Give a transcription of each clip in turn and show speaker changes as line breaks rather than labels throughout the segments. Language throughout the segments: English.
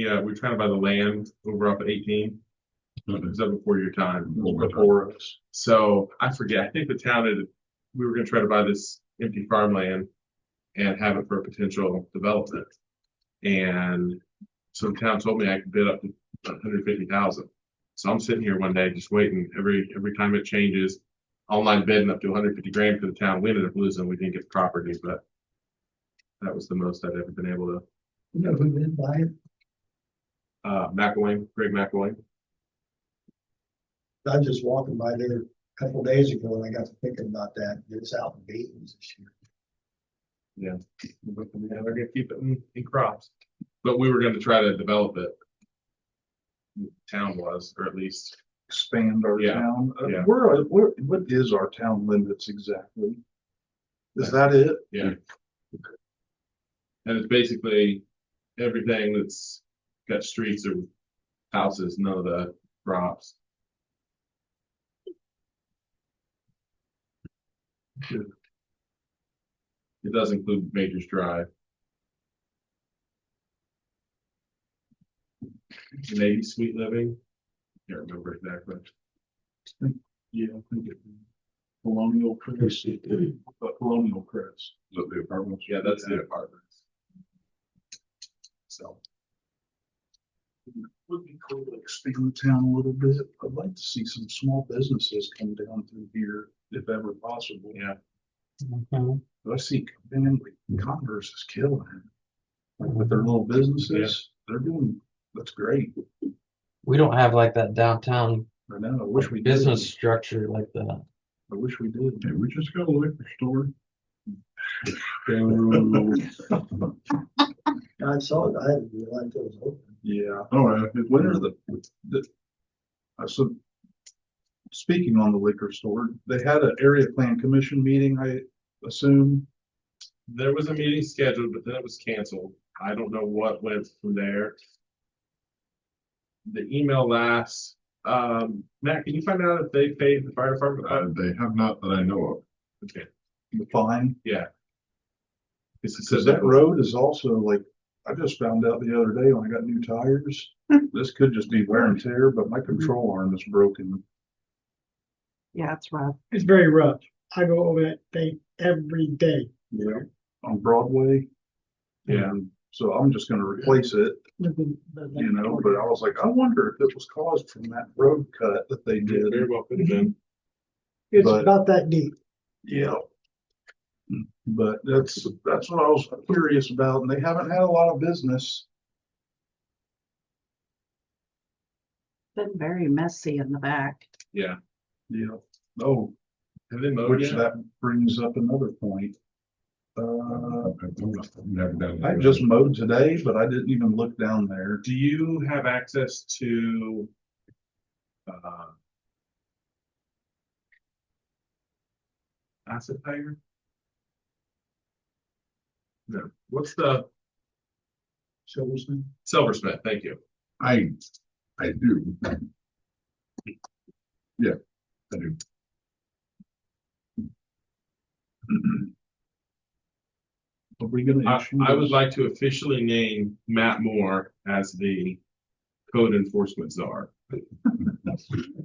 Yeah, we're trying to buy the land over up at eighteen. It was up before your time,
Before.
before us. So I forget, I think the town had, we were gonna try to buy this empty farmland and have it for a potential development. And so the town told me I could bid up to hundred fifty thousand. So I'm sitting here one day just waiting, every, every time it changes, online bidding up to hundred fifty grand for the town. We ended up losing, we didn't get the property, but that was the most I've ever been able to
You know who did buy it?
Uh, McElwain, Greg McElwain.
I was just walking by there a couple days ago and I got to thinking about that. It's out in Dayton's this year.
Yeah, they're gonna keep it in, in crops. But we were gonna try to develop it. Town was, or at least,
expand our
Yeah,
town. Uh,
yeah.
Where, are- where, what is our town limits exactly? Is that it?
yeah. And it's basically everything that's got streets or houses, none of the crops. It does include Major's Drive. Maybe Sweet Living, can't remember exactly.
Yeah, I think it. Colonial Crest, uh, Colonial Crest.
But the apartments. Yeah, that's the apartments. So,
Would be cool to expand the town a little bit. I'd like to see some small businesses come down through here if ever possible.
yeah,
But I see family Converse is killing it. Like with their little businesses, they're doing, that's great.
We don't have like that downtown
I know, I wish we did.
business structure like that.
I wish we did.
we just got a liquor store. I saw it. I didn't realize it was open.
Yeah.
Oh,
All right. When are the, the, uh, so. Speaking on the liquor store, they had an area plan commission meeting, I assume.
there was a meeting scheduled, but then it was canceled. I don't know what went from there. The email lasts, um, Matt, can you find out if they paid the fire department? Uh,
they have not that I know of.
okay.
The fine,
This is-
because that road is also like, I just found out the other day when I got new tires. This could just be wear and tear, but my control arm is broken.
Yeah, it's rough.
It's very rough. I go over that thing every day.
Yeah. On Broadway.
Yeah.
And So I'm just gonna replace it.
With the- the- the-
you know, but I was like, I wonder if it was caused from that road cut that they did.
Very well could have been.
It's
but-
about that deep.
Yeah. But that's, that's what I was curious about, and they haven't had a lot of business.
Been very messy in the back.
Yeah.
Yeah. Oh,
Have they mowed
which
yet?
that brings up another point. Uh, I
I
just mowed today, but I didn't even look down there.
Do you have access to? uh, Acid Tiger? No, what's the
Silverstein?
Silversmith? Thank you.
I, I do. Yeah, I do.
Are we gonna?
I,
issue
I would
those?
like to officially name Matt Moore as the code enforcement czar.
Hey,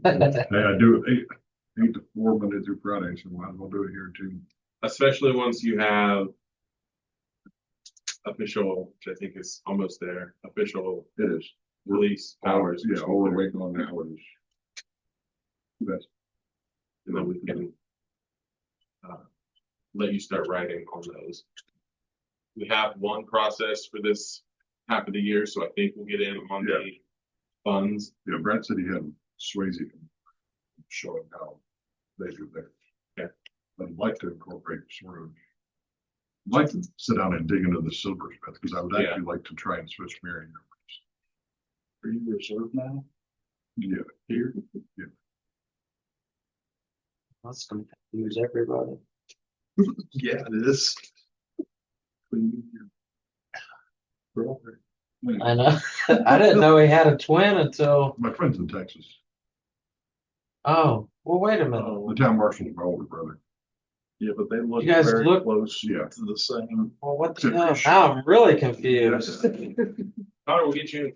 I do eight, eight to four Monday through Friday, so might as well do it here too.
especially once you have official, which I think is almost there, official
It is.
release powers.
Yeah, all we're waiting on now is. That's,
And then we can uh, let you start writing on those. We have one process for this half of the year, so I think we'll get in on the funds.
you know, Brad said he had Swayze showing how they do theirs.
Yeah.
I'd like to incorporate Swerve. I'd Like to sit down and dig into the silversmith, because I would
Yeah.
actually like to try and switch Marion.
Are you reserved now?
Yeah,
Here?
That's gonna confuse everybody.
Yeah, it is. Brother.
I know. I didn't know he had a twin until,
my friend's in Texas,
oh, well, wait a minute.
the town marshal's my older
Uh,
brother,
Yeah, but they look
You guys
very
look-
close
Yeah.
to the same.
Well, what the hell? Now I'm really confused.
Connor, we'll get you in